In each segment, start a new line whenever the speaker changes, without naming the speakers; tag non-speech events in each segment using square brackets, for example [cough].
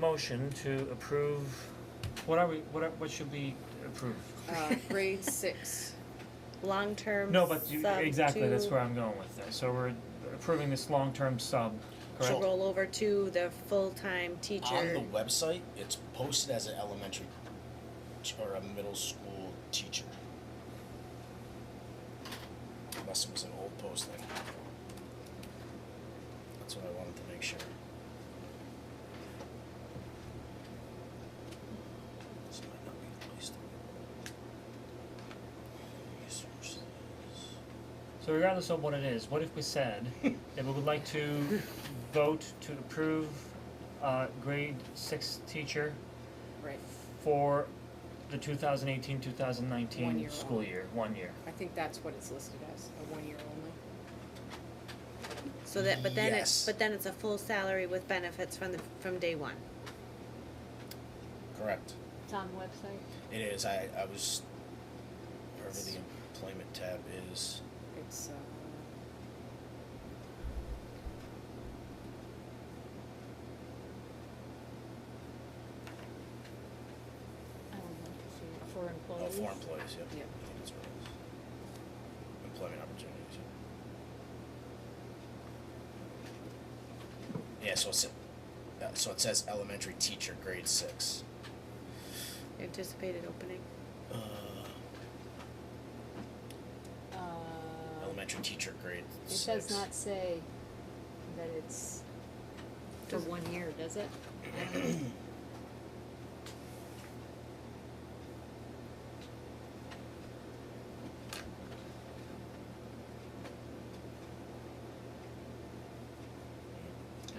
motion to approve, what are we, what are, what should we approve?
[laughs] uh, grade six.
long-term
No, but you,
sub
exactly, that's
to-
where I'm going with this, so we're approving this long-term sub,
To
correct?
roll over to the full-time
On
teacher.
the website, it's posted as an elementary t- or a middle school teacher. Unless it was an old posting. That's what I wanted to make sure. This might not be the place to. Resources.
So regardless of what it is, what if we
[laughs]
said that we would like to vote to approve uh grade six teacher
Right.
for the 2018-2019
One year
school
only.
year, one year?
I think that's what it's listed as, a one year only.
So that, but then it's,
Yes.
but then it's a full salary with benefits from the, from day one.
Correct.
It's on the website.
It is, I, I was, wherever the employment tab is.
It's, uh,
I would love to see it for
Oh,
employees.
for employees, yep.
Yeah.
I think that's what it is. Employment opportunities, yeah. Yeah, so it's, uh, so it says elementary teacher, grade six.
Anticipated opening.
Uh,
Uh,
elementary teacher, grade
it
six.
does not say that it's for one year, does it?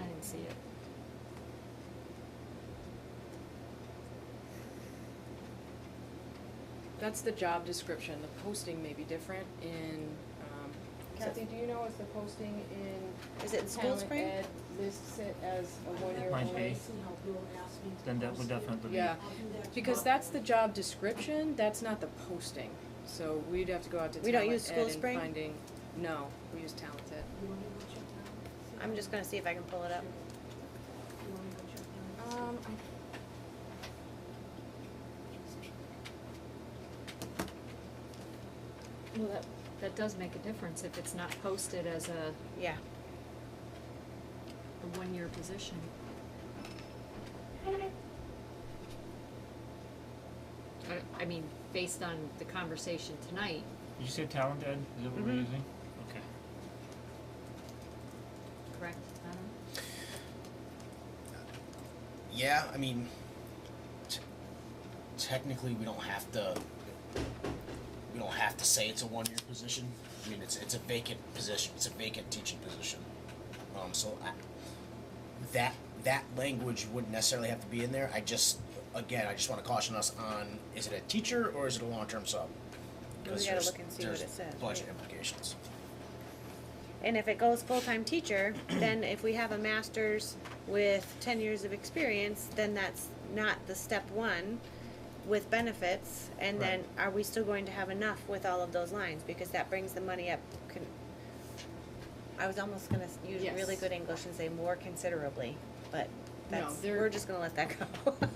I didn't see it.
that's the job description, the posting may be different in, um, Kathy, do you know if the posting in
Is it in school
Talent
spring?
Ed lists it as a one year
Might
only?
be. Then that would definitely be.
Yeah, because that's the job description, that's not the posting, so we'd have to go out to
We don't
Talent
use
Ed
School
and
Spring?
finding, no, we use talented.
I'm just gonna see if I can pull it up.
Um, I
Well, that, that does make a difference if it's not posted as a,
Yeah,
a one-year position. I, I mean, based on the conversation tonight,
Did you say talent ed, is that what
Mm-hmm.
we're
Mhm.
using? Okay.
correct, Adam?
Yeah, I mean, t- technically, we don't have to, we don't have to say it's a one-year position. I mean, it's, it's a vacant position, it's a vacant teaching position. Um, so I, that, that language wouldn't necessarily have to be in there. I just, again, I just wanna caution us on, is it a teacher or is it a long-term sub?
We
'Cause
gotta
there's-
look and see what
there's
it says,
Budget
right.
implications.
and if it goes full-time teacher, then if we have a master's with ten years of experience, then that's not the step one with benefits, and then are we still going to have enough with all of those lines, because that brings the money up con- I was almost gonna s- use
Yes.
really good English and say more considerably, but
No,
that's,
they're-
we're just gonna let that go. [laughs]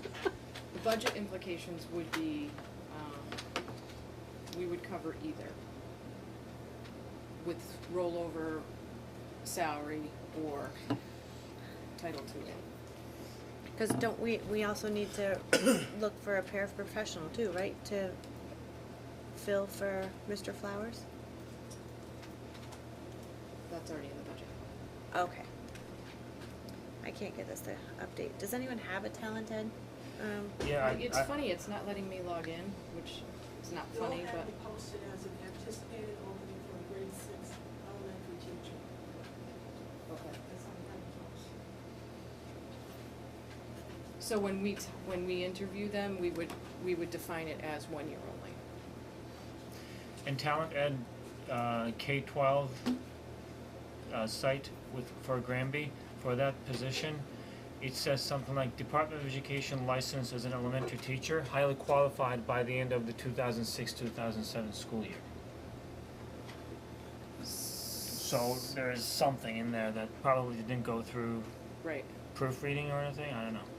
The budget implications would be, um, we would cover either with rollover salary or Title II.
Cause don't we, we also need [coughs] to look for a paraprofessional too, right, to fill for Mr. Flowers?
That's already in the budget.
Okay. I can't get this to update. Does anyone have a talented? Um,
Yeah, I, I.
It's funny, it's not letting me log in, which is not funny,
You'll
but
have it posted as an anticipated opening for a grade six elementary teacher.
okay.
That's on the post.
So when we, t- when we interview them, we would, we would define it as one year only.
And talent ed, uh, K twelve, uh, site with, for Granby, for that position, it says something like Department of Education licensed as an elementary teacher, highly qualified by the end of the two thousand six, two thousand seven school year. So there is something in there that probably didn't go through
Right.
proofreading or anything, I don't know.